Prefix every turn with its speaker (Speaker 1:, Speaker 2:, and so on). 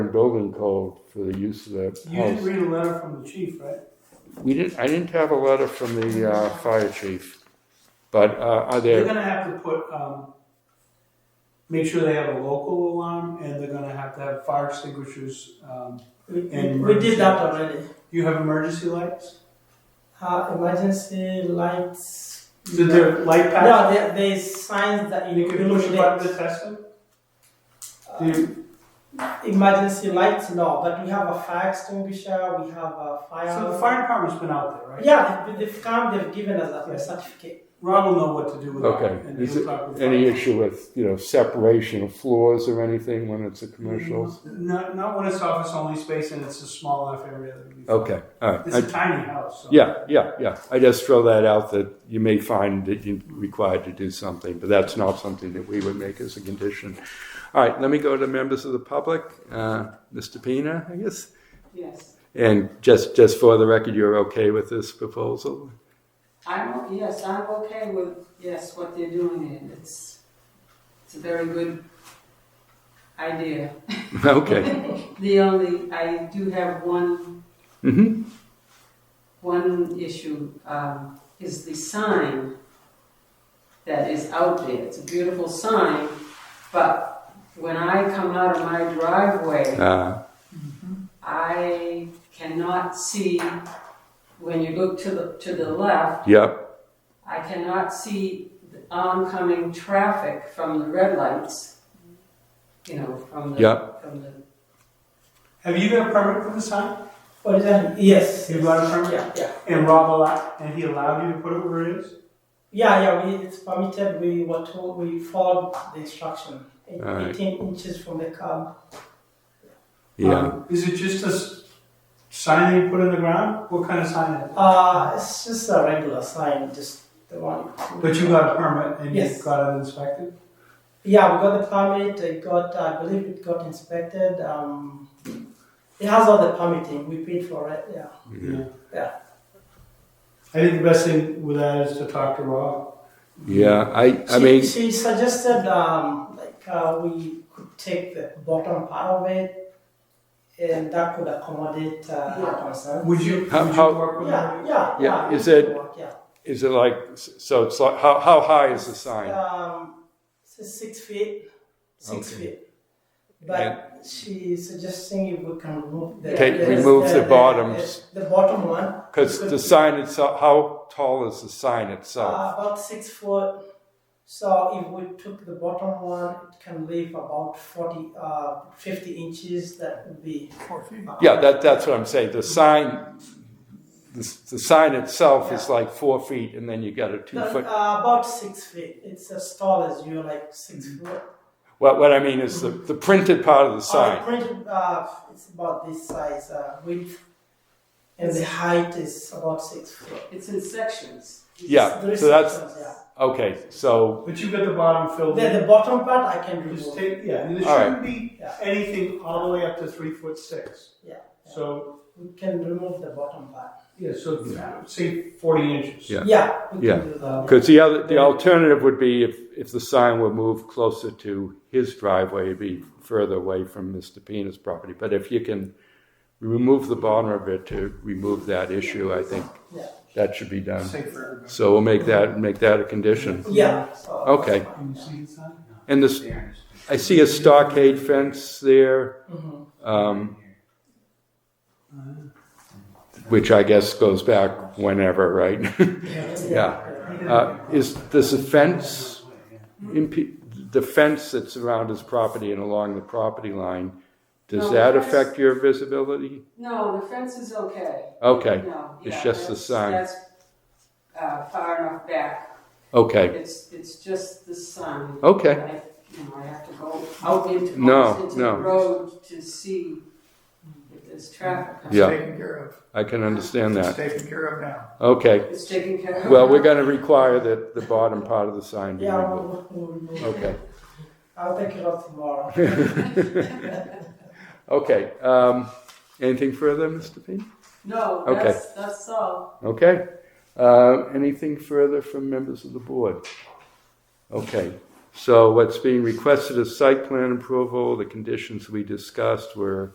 Speaker 1: building code for the use of that
Speaker 2: You did
Speaker 1: house.
Speaker 2: read a letter from the chief, right?
Speaker 1: We didn't, I didn't have a letter from the, uh, fire chief, but, uh, are
Speaker 2: They're
Speaker 1: there,
Speaker 2: gonna have to put, um, make sure they have a local alarm and they're gonna have to have fire extinguishers. Um,
Speaker 3: We, we-
Speaker 2: And
Speaker 3: we did that
Speaker 2: emergency.
Speaker 3: already.
Speaker 2: you have emergency lights?
Speaker 3: Uh, emergency lights.
Speaker 2: Did there light patch?
Speaker 3: No, there, there is signs that
Speaker 2: You
Speaker 3: illuminate.
Speaker 2: can push a button to test them? Do you,
Speaker 3: Uh, emergency lights, no, but we have a fire extinguisher, we have a fire.
Speaker 2: so the fire department's been out there, right?
Speaker 3: Yeah, they- they've come, they've given us a
Speaker 2: Yeah.
Speaker 3: certificate.
Speaker 2: Rob will know what to do with that.
Speaker 1: Okay.
Speaker 2: and
Speaker 1: Is
Speaker 2: he'll
Speaker 1: it
Speaker 2: talk with
Speaker 1: any
Speaker 2: fire.
Speaker 1: issue with, you know, separation of floors or anything when it's a commercial?
Speaker 2: Not, not when it's office only space and it's a small enough area that would be.
Speaker 1: Okay, all right.
Speaker 2: It's
Speaker 1: I-
Speaker 2: a tiny house, so.
Speaker 1: Yeah, yeah, yeah. I just throw that out that you may find that you're required to do something, but that's not something that we would make as a condition. All right, let me go to members of the public. Uh, Mr. Pena, I guess?
Speaker 4: Yes,
Speaker 1: And just, just for the record, you're okay with this proposal?
Speaker 4: I'm, yes, I'm okay with, yes, what they're doing, and it's, it's a very good idea.
Speaker 1: Okay.
Speaker 4: The only, I do have one,
Speaker 1: Mm-hmm.
Speaker 4: one issue, um, is the sign that is out there. It's a beautiful sign, but when I come out of my driveway,
Speaker 1: Uh,
Speaker 4: I cannot see, when you look to the, to the left,
Speaker 1: yep,
Speaker 4: I cannot see the oncoming traffic from the red lights, you know, from the,
Speaker 1: Yeah.
Speaker 4: from the,
Speaker 2: Have you got a permit for the sign?
Speaker 3: What is that? Yes.
Speaker 2: You got a permit?
Speaker 3: Yeah, yeah.
Speaker 2: And Rob allowed, and he allowed you to put it where it is?
Speaker 3: Yeah, yeah, we, it's permitted, we were told, we followed the instruction. Eight-
Speaker 1: Alright.
Speaker 3: 18 inches from the curb.
Speaker 1: yeah.
Speaker 2: Um, Is it just a s- sign that you put in the ground? What kind of sign is it?
Speaker 3: Uh, it's just a regular sign, just the one.
Speaker 2: But you got a permit and you
Speaker 3: Yes.
Speaker 2: got it inspected?
Speaker 3: Yeah, we got the permit. It got, I believe it got inspected. Um, it has all the permitting. We paid for it. Yeah.
Speaker 1: Yeah.
Speaker 3: Yeah.
Speaker 2: I think the best thing with that is to talk to Rob.
Speaker 1: Yeah, I, I
Speaker 3: she,
Speaker 1: mean,
Speaker 3: she suggested um, like uh, we could take the bottom part of it, and that could accommodate uh,
Speaker 4: Yeah.
Speaker 3: our concern.
Speaker 2: Would you,
Speaker 1: How-
Speaker 2: would
Speaker 1: how-
Speaker 2: you work with
Speaker 3: Yeah,
Speaker 2: him?
Speaker 3: yeah,
Speaker 1: Yeah,
Speaker 3: we
Speaker 1: is it-
Speaker 3: could work, yeah.
Speaker 1: is it like, so it's like, how, how high is the sign?
Speaker 3: Um, so six feet, six
Speaker 1: Okay.
Speaker 3: feet. But she's suggesting if we can remove the
Speaker 1: Take-
Speaker 3: the-
Speaker 1: remove the bottoms.
Speaker 3: the, the bottom one.
Speaker 1: Because the sign itself, how tall is the sign itself?
Speaker 3: Uh, about six foot. So if we took the bottom one, it can leave about 40, uh, 50 inches. That would be. uh,
Speaker 1: Yeah, that, that's what I'm saying. The sign, the, the sign itself is like four feet, and then you got a two
Speaker 3: No,
Speaker 1: foot.
Speaker 3: uh, about six feet. It's as tall as you, like 6
Speaker 1: Mm.
Speaker 3: foot.
Speaker 1: What, what I mean is the, the printed part of the
Speaker 3: Uh,
Speaker 1: sign.
Speaker 3: printed, uh, it's about this size uh, width, and the height is about six foot.
Speaker 4: it's in sections.
Speaker 1: Yeah,
Speaker 3: There is
Speaker 1: so that's
Speaker 3: sections, yeah.
Speaker 1: okay. So
Speaker 2: But you got the bottom filled in.
Speaker 3: The, the bottom part I can
Speaker 2: Just
Speaker 3: remove.
Speaker 2: take, yeah, and there
Speaker 1: All
Speaker 2: shouldn't be
Speaker 3: Yeah.
Speaker 2: anything all the way up to three foot six.
Speaker 3: Yeah.
Speaker 2: So,
Speaker 3: We can remove the bottom part.
Speaker 2: yeah, so say forty inches.
Speaker 1: Yeah.
Speaker 3: Yeah, we
Speaker 1: Yeah.
Speaker 3: can do that.
Speaker 1: because the other the alternative would be if, if the sign were moved closer to his driveway, it'd be further away from Mr. Pena's property. But if you can remove the bottom of it to remove that issue, I think
Speaker 3: Yeah.
Speaker 1: that should be done.
Speaker 2: Safe for everybody.
Speaker 1: So we'll make that make that a condition.
Speaker 3: Yeah. So
Speaker 1: Okay.
Speaker 3: that's fine,
Speaker 2: Can you
Speaker 3: yeah.
Speaker 2: see inside? No.
Speaker 1: And this
Speaker 2: There.
Speaker 1: I see a stockade fence there,
Speaker 3: Mhm.
Speaker 1: um, which I guess goes back whenever, right?
Speaker 3: Yeah.
Speaker 1: uh, is this a fence? Imp- the fence that's around his property and along the property line, does
Speaker 4: No,
Speaker 1: that
Speaker 4: that's-
Speaker 1: affect your visibility?
Speaker 4: No, the fence is okay.
Speaker 1: Okay,
Speaker 4: No,
Speaker 1: It's
Speaker 4: yeah,
Speaker 1: just the
Speaker 4: that's-
Speaker 1: sign.
Speaker 4: That's, uh, far enough back.
Speaker 1: okay,
Speaker 4: It's, it's just the sign.
Speaker 1: okay.
Speaker 4: I, you know, I have to go out into,
Speaker 1: No,
Speaker 4: almost into
Speaker 1: no.
Speaker 4: the road to see if there's traffic.
Speaker 1: Yeah.
Speaker 5: taken care of.
Speaker 1: I can understand
Speaker 5: It's
Speaker 1: that.
Speaker 5: taken care of now.
Speaker 1: Okay.
Speaker 4: It's taken care of.
Speaker 1: Well, we're going to require that the bottom part of the sign be
Speaker 3: Yeah,
Speaker 1: removed.
Speaker 3: we'll, we'll remove.
Speaker 1: Okay.
Speaker 3: I'll take it off tomorrow.
Speaker 1: Okay. Um, anything further, Mr. P?
Speaker 4: No,
Speaker 1: Okay.
Speaker 4: that's, that's all.
Speaker 1: Okay. Uh, anything further from members of the board? Okay. So what's being requested is site plan approval. The conditions we discussed were